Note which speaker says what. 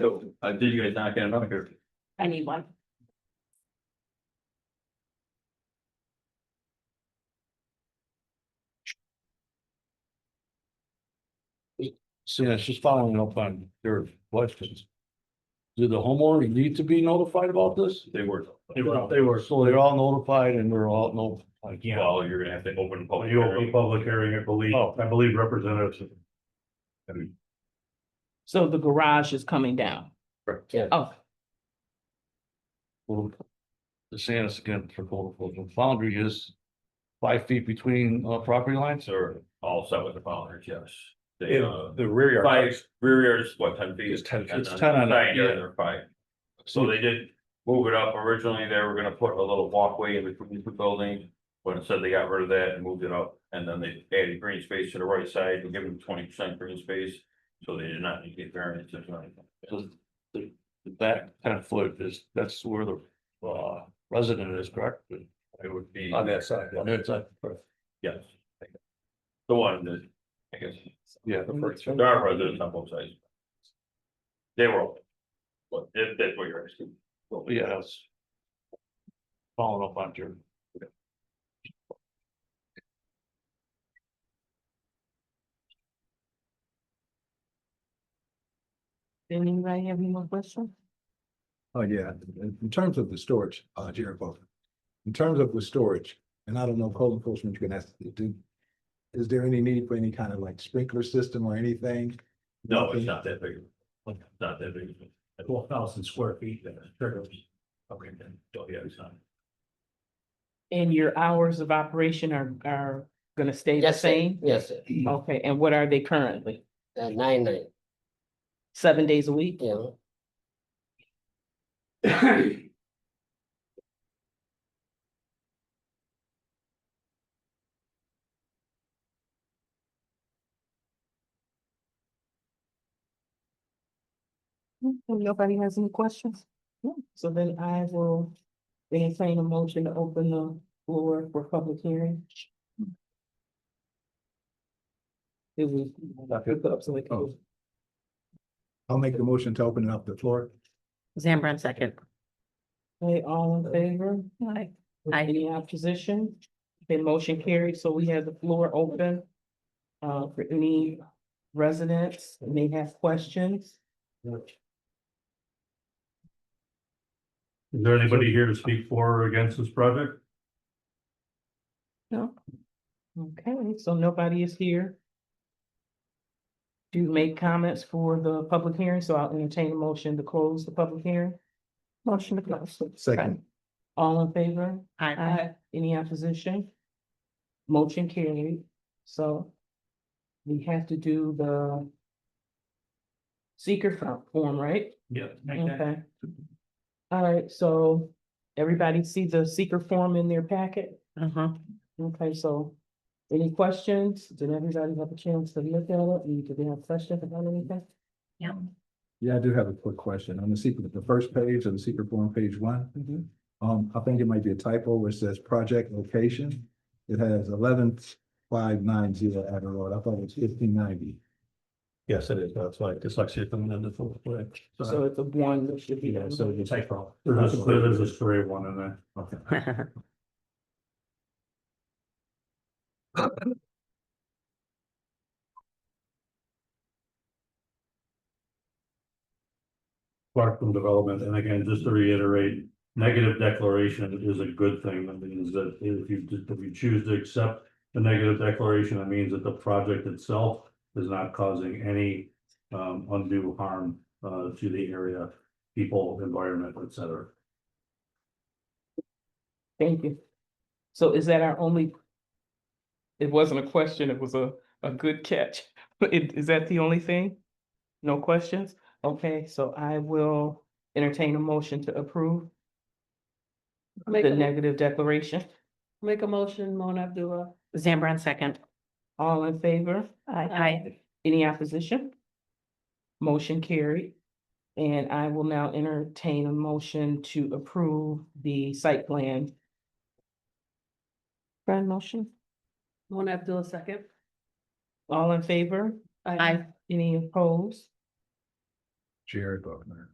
Speaker 1: So, uh, did you guys not get another here?
Speaker 2: I need one.
Speaker 3: So yeah, it's just following up on their questions. Do the homeowner need to be notified about this?
Speaker 1: They were.
Speaker 4: They were, they were,
Speaker 3: So they're all notified and they're all notified.
Speaker 4: yeah,
Speaker 1: Well, you're gonna have to open.
Speaker 4: When
Speaker 1: public
Speaker 4: you open a
Speaker 1: hearing.
Speaker 4: public hearing, I believe,
Speaker 3: Oh.
Speaker 4: I believe representatives.
Speaker 2: So the garage is coming down.
Speaker 1: Correct.
Speaker 2: Oh,
Speaker 3: Well, The saying is again for code enforcement, boundary is five feet between uh property lines or
Speaker 1: They're all set with the followers, yes. They, uh,
Speaker 5: If the rear yard,
Speaker 1: five, rear yard is what, ten feet?
Speaker 5: It's 10 feet.
Speaker 1: And
Speaker 3: It's
Speaker 1: then
Speaker 3: 10 on that,
Speaker 1: Side yard,
Speaker 3: yeah.
Speaker 1: they're five. So they did move it up. Originally, they were gonna put a little walkway in between the two buildings. But instead they got rid of that and moved it up. And then they added green space to the right side and given twenty percent green space. So they did not need to get variances or anything.
Speaker 3: the- the- the back ten foot is, that's where the uh resident is, correct?
Speaker 1: It would be,
Speaker 5: on that side,
Speaker 3: On their side.
Speaker 1: yes. The one that, I guess,
Speaker 5: yeah, the first,
Speaker 1: there are residents on both sides. They were. open. But if that's what you're asking.
Speaker 3: Well, yeah, that's. Following up on your.
Speaker 2: did anybody have any more questions?
Speaker 6: Oh, yeah, in in terms of the storage, uh, Jared Bowman, in terms of the storage, and I don't know, code enforcement, you can ask, do. Is there any need for any kind of like sprinkler system or anything?
Speaker 1: No, it's not that big. Not that big.
Speaker 4: Twelve thousand square feet, uh, that's true.
Speaker 1: Okay, then, oh, yeah, it's not.
Speaker 2: And your hours of operation are, are gonna stay the
Speaker 7: Yes, sir. Mm-hmm.
Speaker 2: same?
Speaker 7: Yes, sir.
Speaker 2: Okay, and what are they currently?
Speaker 7: Uh, nine nine,
Speaker 2: Seven days a week?
Speaker 7: you know,
Speaker 2: Hmm, Nobody has any questions? No, so then I will entertain a motion to open the floor for public hearing. It was.
Speaker 6: Oh. I'll make the motion to open up the floor.
Speaker 8: Zambran second.
Speaker 2: Okay, all in favor? Aye.
Speaker 8: Aye.
Speaker 2: Any opposition? Then motion carried, so we have the floor open. Uh, for any residents that may have questions.
Speaker 4: Is there anybody here to speak for or against this project?
Speaker 2: No? Okay, so nobody is here. To make comments for the public hearing, so I'll entertain a motion to close the public hearing. Motion to close.
Speaker 6: Second.
Speaker 2: All in favor?
Speaker 8: Aye.
Speaker 2: Any opposition? Motion carried, so. We have to do the. Seeker fo- form, right?
Speaker 4: Yeah.
Speaker 2: Okay. All right, so everybody see the seeker form in their packet?
Speaker 8: Uh-huh.
Speaker 2: Okay, so any questions? Did everybody have a chance to look at it? And did they have questions about anything?
Speaker 6: Yeah, I do have a quick question. On the secret, the first page of the secret form, page one. Um, I think it might be a typo where it says project location. It has eleven five nine zero Abbey Road. I thought it was fifteen ninety.
Speaker 4: Yes, it is. That's like dyslexia coming in the full way.
Speaker 2: So it's a one that should be. on.
Speaker 4: you take from. There's a, there's a stray one in there. Okay. Clarkson Development, and again, just to reiterate, negative declaration is a good thing, that means that if you, if you choose to accept the negative declaration, that means that the project itself is not causing any um, undue harm uh, to the area, people, environment, et cetera.
Speaker 2: Thank you. So is that our only? It wasn't a question, it was a, a good catch. But it- Is that the only thing? No questions? Okay, so I will entertain a motion to approve
Speaker 9: Make,
Speaker 2: the
Speaker 9: a-
Speaker 2: negative declaration.
Speaker 9: make a motion, Mona Abdullah.
Speaker 8: Zambran second.
Speaker 2: All in favor?
Speaker 8: Aye.
Speaker 2: Any opposition? Motion carried. And I will now entertain a motion to approve the site plan. Grand motion.
Speaker 9: Mona Abdullah second.
Speaker 2: All in favor?
Speaker 8: Aye.
Speaker 2: Any opposed?
Speaker 6: Jared Bogner.